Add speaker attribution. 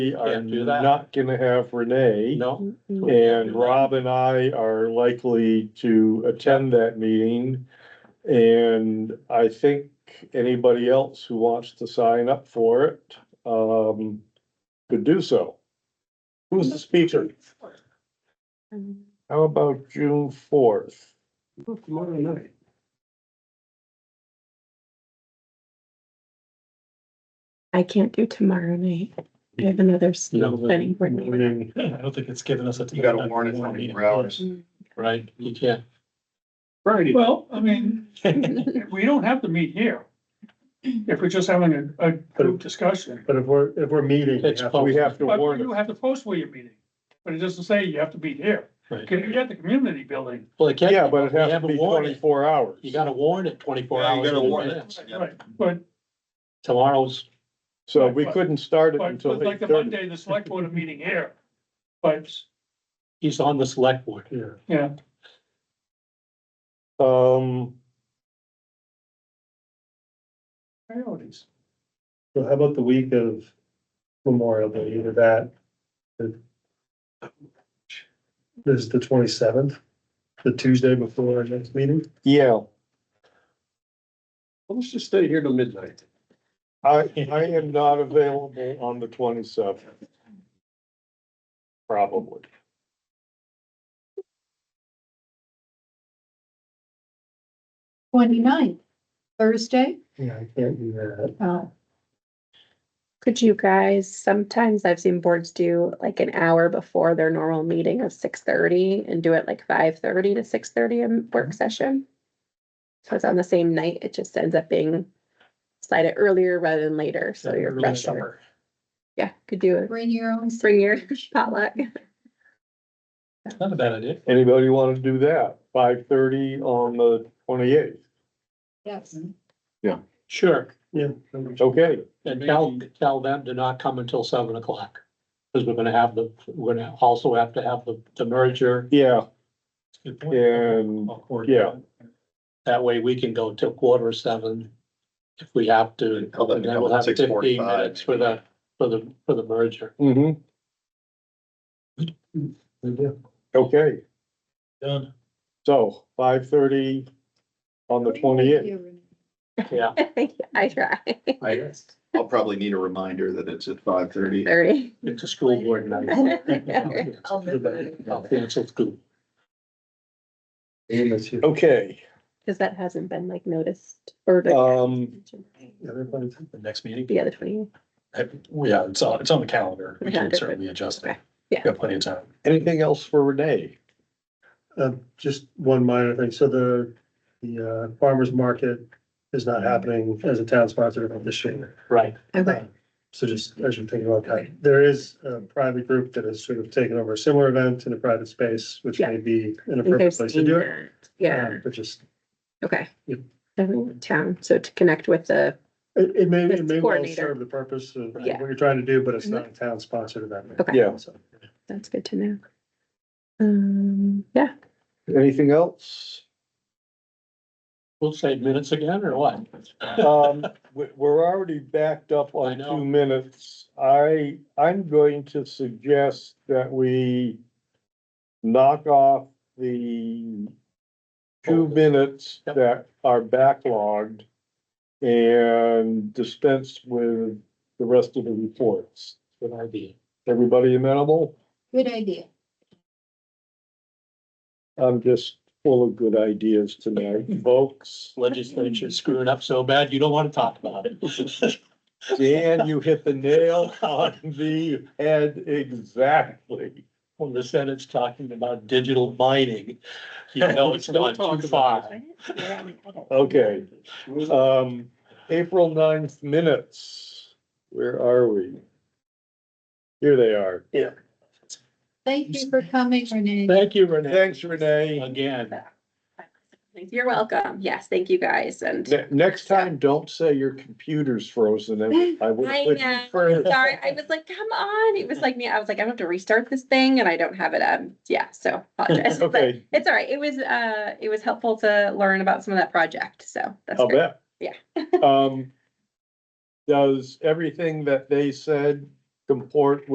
Speaker 1: We are
Speaker 2: Can't do that.
Speaker 1: not gonna have Renee,
Speaker 2: No?
Speaker 1: and Rob and I are likely to attend that meeting. And I think anybody else who wants to sign up for it, um, could do so. Who's the speaker?
Speaker 3: Um,
Speaker 1: How about June fourth?
Speaker 4: Tomorrow night.
Speaker 3: I can't do tomorrow night. I have another
Speaker 2: No.
Speaker 3: planning board meeting.
Speaker 5: I don't think it's given us a.
Speaker 4: You gotta warn it twenty-four hours.
Speaker 2: Right, you can't.
Speaker 4: Friday.
Speaker 5: Well, I mean, we don't have to meet here. If we're just having a, a group discussion.
Speaker 1: But if we're, if we're meeting,
Speaker 2: It's
Speaker 1: we have to
Speaker 5: But
Speaker 1: warn
Speaker 5: you
Speaker 1: it.
Speaker 5: have to post where you're meeting, but it doesn't say you have to be here.
Speaker 2: Right.
Speaker 5: Can you get the community building?
Speaker 2: Well, it can't.
Speaker 1: Yeah, but it
Speaker 2: we
Speaker 1: has to
Speaker 2: haven't
Speaker 1: be
Speaker 2: warned it.
Speaker 1: twenty-four hours.
Speaker 2: You gotta warn it twenty-four
Speaker 4: Yeah, you
Speaker 2: hours.
Speaker 4: gotta
Speaker 2: in
Speaker 4: warn it.
Speaker 2: advance.
Speaker 4: Yep.
Speaker 5: Right, but,
Speaker 2: Tomorrow's,
Speaker 1: So we couldn't start it
Speaker 5: but,
Speaker 1: until
Speaker 5: but like
Speaker 1: eight
Speaker 5: the
Speaker 1: thirty.
Speaker 5: Monday, the select board are meeting here. But,
Speaker 2: he's on the select board.
Speaker 5: yeah,
Speaker 1: Um,
Speaker 5: priorities.
Speaker 6: So how about the week of Memorial Day, either that? the- This is the twenty-seventh, the Tuesday before our next meeting?
Speaker 1: yeah,
Speaker 4: Let's just stay here till midnight.
Speaker 1: I, I am not available on the twenty-seventh. Probably.
Speaker 7: Twenty-ninth, Thursday,
Speaker 6: Yeah, I can't do that.
Speaker 7: uh,
Speaker 3: Could you guys, sometimes I've seen boards do like an hour before their normal meeting of six thirty and do it like five thirty to six thirty in
Speaker 2: Mm-hmm.
Speaker 3: work session. So it's on the same night, it just ends up being slide it earlier rather than later, so you're
Speaker 2: Early
Speaker 3: fresher.
Speaker 2: summer.
Speaker 3: Yeah, could do it,
Speaker 7: bring your own.
Speaker 3: bring your potluck.
Speaker 2: Not a bad idea.
Speaker 1: Anybody wanna do that? Five thirty on the twenty-eighth?
Speaker 7: Yes,
Speaker 2: Sure,
Speaker 1: Okay,
Speaker 2: and tell, tell them to not come until seven o'clock. Cause we're gonna have the, we're gonna also have to have the, the merger.
Speaker 1: yeah,
Speaker 2: Good
Speaker 1: and Yeah.
Speaker 2: That way we can go till quarter of seven if we have to. And
Speaker 4: Tell them to
Speaker 2: then
Speaker 4: come
Speaker 2: we'll
Speaker 4: at
Speaker 2: have fifteen
Speaker 4: 6:45
Speaker 2: minutes for
Speaker 4: maybe.
Speaker 2: the, for the, for the merger.
Speaker 1: hmm okay,
Speaker 5: Done.
Speaker 1: so five thirty on the twenty-eighth.
Speaker 2: Yeah,
Speaker 3: I try,
Speaker 4: I, I'll probably need a reminder that it's at five thirty.
Speaker 3: thirty.
Speaker 2: it's a school board night. I'll cancel school.
Speaker 1: Okay,
Speaker 3: Cause that hasn't been like noticed or. like,
Speaker 1: um,
Speaker 5: The next meeting?
Speaker 3: Yeah, the twenty.
Speaker 5: Yeah, it's on, it's on the calendar.
Speaker 3: We can certainly
Speaker 5: adjust
Speaker 3: it. Yeah.
Speaker 5: Got plenty of time.
Speaker 1: anything else for Renee?
Speaker 6: Uh, just one minor thing, so the, the uh, farmer's market is not happening as a town sponsored event this year.
Speaker 2: Right,
Speaker 3: Okay,
Speaker 6: So just as you're thinking about that, there is a private group that has sort of taken over a similar event in a private space, which may be
Speaker 3: I
Speaker 6: an
Speaker 3: think I've
Speaker 6: appropriate place to
Speaker 3: seen
Speaker 6: do it.
Speaker 3: that. Yeah,
Speaker 6: Um, But just,
Speaker 3: okay.
Speaker 6: Yep.
Speaker 3: Definitely town, so to connect with the,
Speaker 6: it, it may,
Speaker 3: That's
Speaker 6: it may well
Speaker 3: coordinator.
Speaker 6: serve the purpose of what
Speaker 3: Yeah. Mm-hmm.
Speaker 6: you're trying to do, but it's not a town sponsored event.
Speaker 3: Okay.
Speaker 1: Yeah.
Speaker 6: So,
Speaker 3: that's good to know. Um, yeah,
Speaker 1: Anything else?
Speaker 2: we'll save minutes again or what?
Speaker 1: Um, we, we're already backed up
Speaker 2: I
Speaker 1: on
Speaker 2: know.
Speaker 1: two minutes. I, I'm going to suggest that we knock off the two minutes
Speaker 2: Yep.
Speaker 1: that are backlogged and dispense with the rest of the reports.
Speaker 2: Good idea.
Speaker 1: Everybody amenable?
Speaker 7: good idea.
Speaker 1: I'm just full of good ideas tonight, folks.
Speaker 2: Legislature's screwing up so bad, you don't wanna talk about it.
Speaker 1: Dan, you hit the nail on the head exactly.
Speaker 2: When the Senate's talking about digital mining, you know, it's
Speaker 5: Don't
Speaker 2: not
Speaker 5: talk
Speaker 2: too
Speaker 5: about
Speaker 2: far.
Speaker 1: Okay.
Speaker 2: Mm-hmm.
Speaker 1: Um, April 9th minutes, where are we? Here they are.
Speaker 7: Thank you for coming, Renee.
Speaker 2: Thank you, Renee,
Speaker 1: Thanks, Renee.
Speaker 2: again.
Speaker 3: you're welcome. Yes, thank you guys and
Speaker 1: Ne- next time, don't say your computer's frozen. and I would
Speaker 3: I
Speaker 1: quit
Speaker 3: know.
Speaker 1: further.
Speaker 3: sorry, I was like, come on. It was like me, I was like, I am gonna have to restart this thing and I don't have it. Um, yeah, so apologize. But
Speaker 1: Okay,
Speaker 3: It's all right. It was, uh, it was helpful to learn about some of that project, so that's
Speaker 1: I'll
Speaker 3: great.
Speaker 1: bet.
Speaker 3: Yeah.
Speaker 1: Um, does everything that they said comport